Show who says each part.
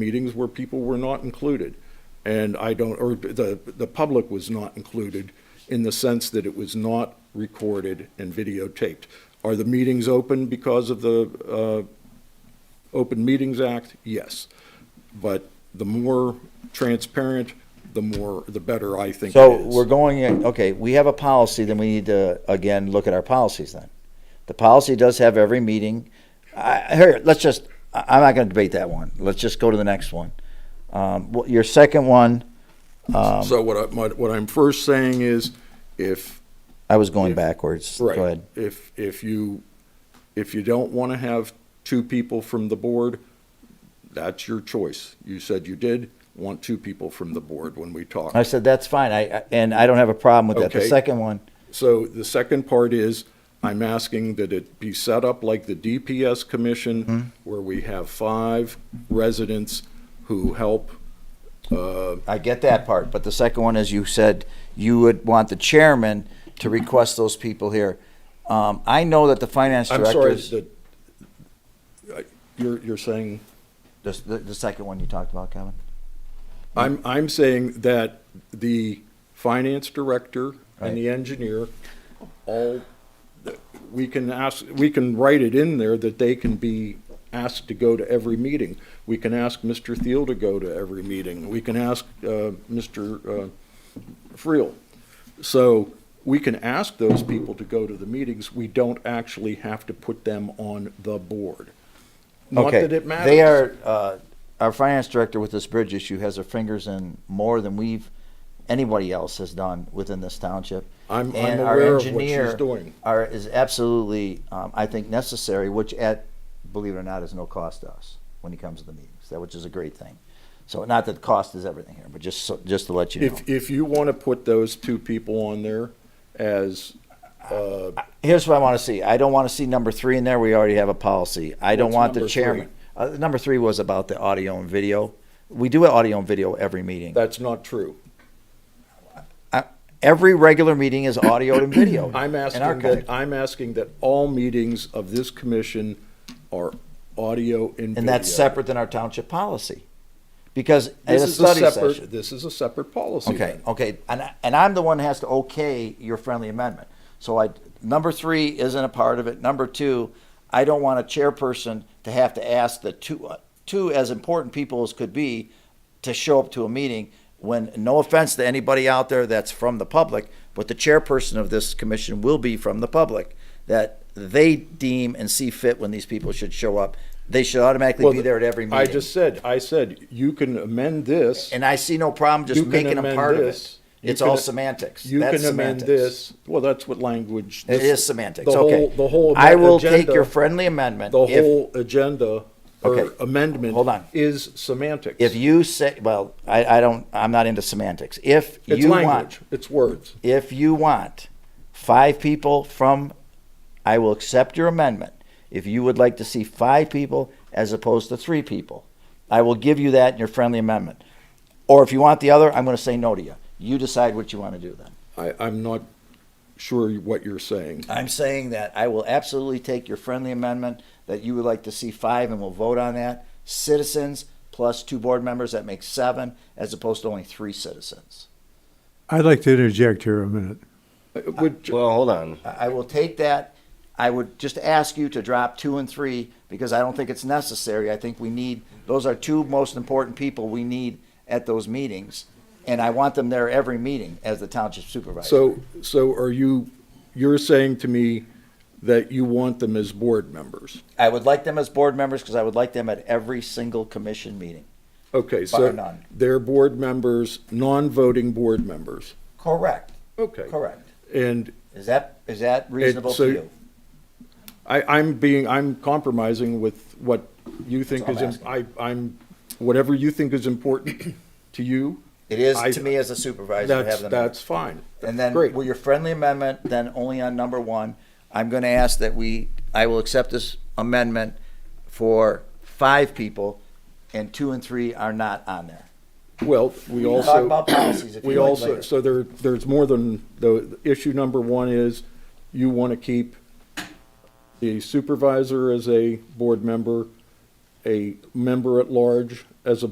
Speaker 1: meetings where people were not included. And I don't, or the, the public was not included in the sense that it was not recorded and videotaped. Are the meetings open because of the uh, Open Meetings Act? Yes. But the more transparent, the more, the better I think it
Speaker 2: So
Speaker 1: is.
Speaker 2: we're going, in- okay, we have a policy, then we need to, again, look at our policies then. The policy does have every meeting. I, here, let's just, I- I'm not gonna debate that one. Let's just go to the next one. Um, what- your second one, um,
Speaker 1: So what I, my- what I'm first saying is, if,
Speaker 2: I was going backwards. Go
Speaker 1: right,
Speaker 2: ahead.
Speaker 1: if, if you, if you don't want to have two people from the board, that's your choice. You said you did want two people from the board when we talked.
Speaker 2: I said, that's fine. I, I- and I don't have a problem with that. The
Speaker 1: Okay.
Speaker 2: second one,
Speaker 1: So the second part is, I'm asking that it be set up like the DPS
Speaker 2: Mm-hmm.
Speaker 1: commission, where we have five residents who help.
Speaker 2: I get that part, but the second one is you said you would want the chairman to request those people here. Um, I know that the finance
Speaker 1: I'm sorry,
Speaker 2: directors,
Speaker 1: that, uh, you're, you're saying?
Speaker 2: the, the, the second one you talked about, Kevin.
Speaker 1: I'm, I'm saying that the finance director and the engineer, all, we can ask, we can write it in there that they can be asked to go to every meeting. We can ask Mr. Thiel to go to every meeting. We can ask, uh, Mr. uh, Friel. So we can ask those people to go to the meetings. We don't actually have to put them on the board. Not
Speaker 2: Okay.
Speaker 1: that it matters.
Speaker 2: They are, uh, our finance director with this bridge issue has her fingers in more than we've, anybody else has done within this township.
Speaker 1: I'm- I'm
Speaker 2: And our
Speaker 1: aware of what she's
Speaker 2: engineer
Speaker 1: doing.
Speaker 2: Are, is absolutely, um, I think necessary, which at, believe it or not, is no cost to us when he comes to the meetings, that, which is a great thing. So not that cost is everything here, but just, so, just to let you know.
Speaker 1: If, if you want to put those two people on there as, uh,
Speaker 2: Here's what I want to see. I don't want to see number three in there. We already have a policy. I don't
Speaker 1: What's
Speaker 2: want the
Speaker 1: number
Speaker 2: chairman. Uh, number three was about the audio and video. We do audio and video every meeting.
Speaker 1: that's not true.
Speaker 2: Every regular meeting is audio and video.
Speaker 1: I'm asking
Speaker 2: and
Speaker 1: that, I'm asking that all meetings of this commission are audio and video.
Speaker 2: and that's separate than our township policy, because
Speaker 1: This
Speaker 2: at a
Speaker 1: is a
Speaker 2: study
Speaker 1: separate,
Speaker 2: session.
Speaker 1: this is a separate policy.
Speaker 2: Okay,
Speaker 1: then.
Speaker 2: okay, and I- and I'm the one that has to okay your friendly amendment. So I number three isn't a part of it. Number two, I don't want a chairperson to have to ask the two uh, two as important people as could be to show up to a meeting. When no offense to anybody out there that's from the public, but the chairperson of this commission will be from the public that they deem and see fit when these people should show up. They should automatically
Speaker 1: Well,
Speaker 2: be there at every meeting.
Speaker 1: I just said, I said, you can amend this.
Speaker 2: and I see no problem just
Speaker 1: you can
Speaker 2: making them
Speaker 1: amend
Speaker 2: part
Speaker 1: this,
Speaker 2: of
Speaker 1: you
Speaker 2: it. It's
Speaker 1: can-
Speaker 2: all semantics.
Speaker 1: You
Speaker 2: That's
Speaker 1: can amend
Speaker 2: semantics.
Speaker 1: this. Well, that's what language.
Speaker 2: It
Speaker 1: this-
Speaker 2: is semantics.
Speaker 1: the
Speaker 2: okay.
Speaker 1: whole- The whole.
Speaker 2: I will take
Speaker 1: agenda-
Speaker 2: your friendly amendment.
Speaker 1: The
Speaker 2: if,
Speaker 1: whole agenda or
Speaker 2: Okay.
Speaker 1: amendment.
Speaker 2: Hold on.
Speaker 1: Is semantics.
Speaker 2: if you say, well, I, I don't. I'm not into semantics. If
Speaker 1: It's
Speaker 2: you want,
Speaker 1: language. It's words.
Speaker 2: if you want, five people from, I will accept your amendment. If you would like to see five people as opposed to three people, I will give you that in your friendly amendment. Or if you want the other, I'm going to say no to you. You decide what you want to do then.
Speaker 1: I, I'm not sure what you're saying.
Speaker 2: I'm saying that I will absolutely take your friendly amendment that you would like to see five and we'll vote on that. Citizens plus two board members, that makes seven, as opposed to only three citizens.
Speaker 3: I'd like to interject here a minute.
Speaker 2: Uh,
Speaker 1: It would-
Speaker 4: Well, hold on.
Speaker 2: I I will take that. I would just ask you to drop two and three because I don't think it's necessary. I think we need, those are two most important people we need at those meetings. And I want them there every meeting as the township supervisor.
Speaker 1: So, so are you, you're saying to me that you want them as board members?
Speaker 2: I would like them as board members because I would like them at every single commission meeting.
Speaker 1: Okay,
Speaker 2: Bar
Speaker 1: so
Speaker 2: none.
Speaker 1: they're board members, non-voting board members.
Speaker 2: Correct.
Speaker 1: Okay.
Speaker 2: Correct.
Speaker 1: And
Speaker 2: Is that, is that reasonable
Speaker 1: so-
Speaker 2: to you?
Speaker 1: I, I'm being, I'm compromising with what you think
Speaker 2: all
Speaker 1: is,
Speaker 2: I'm
Speaker 1: im- I, I'm, whatever you think is important to you.
Speaker 2: It is
Speaker 1: I-
Speaker 2: to me as a supervisor to
Speaker 1: That's,
Speaker 2: have them.
Speaker 1: that's fine.
Speaker 2: And then
Speaker 1: Great.
Speaker 2: with your friendly amendment, then only on number one, I'm going to ask that we, I will accept this amendment for five people and two and three are not on there.
Speaker 1: Well, we
Speaker 2: can
Speaker 1: also.
Speaker 2: talk about policies if
Speaker 1: We
Speaker 2: you like
Speaker 1: also,
Speaker 2: later.
Speaker 1: so there, there's more than, the, issue number one is you want to keep the supervisor as a board member, a member at large as a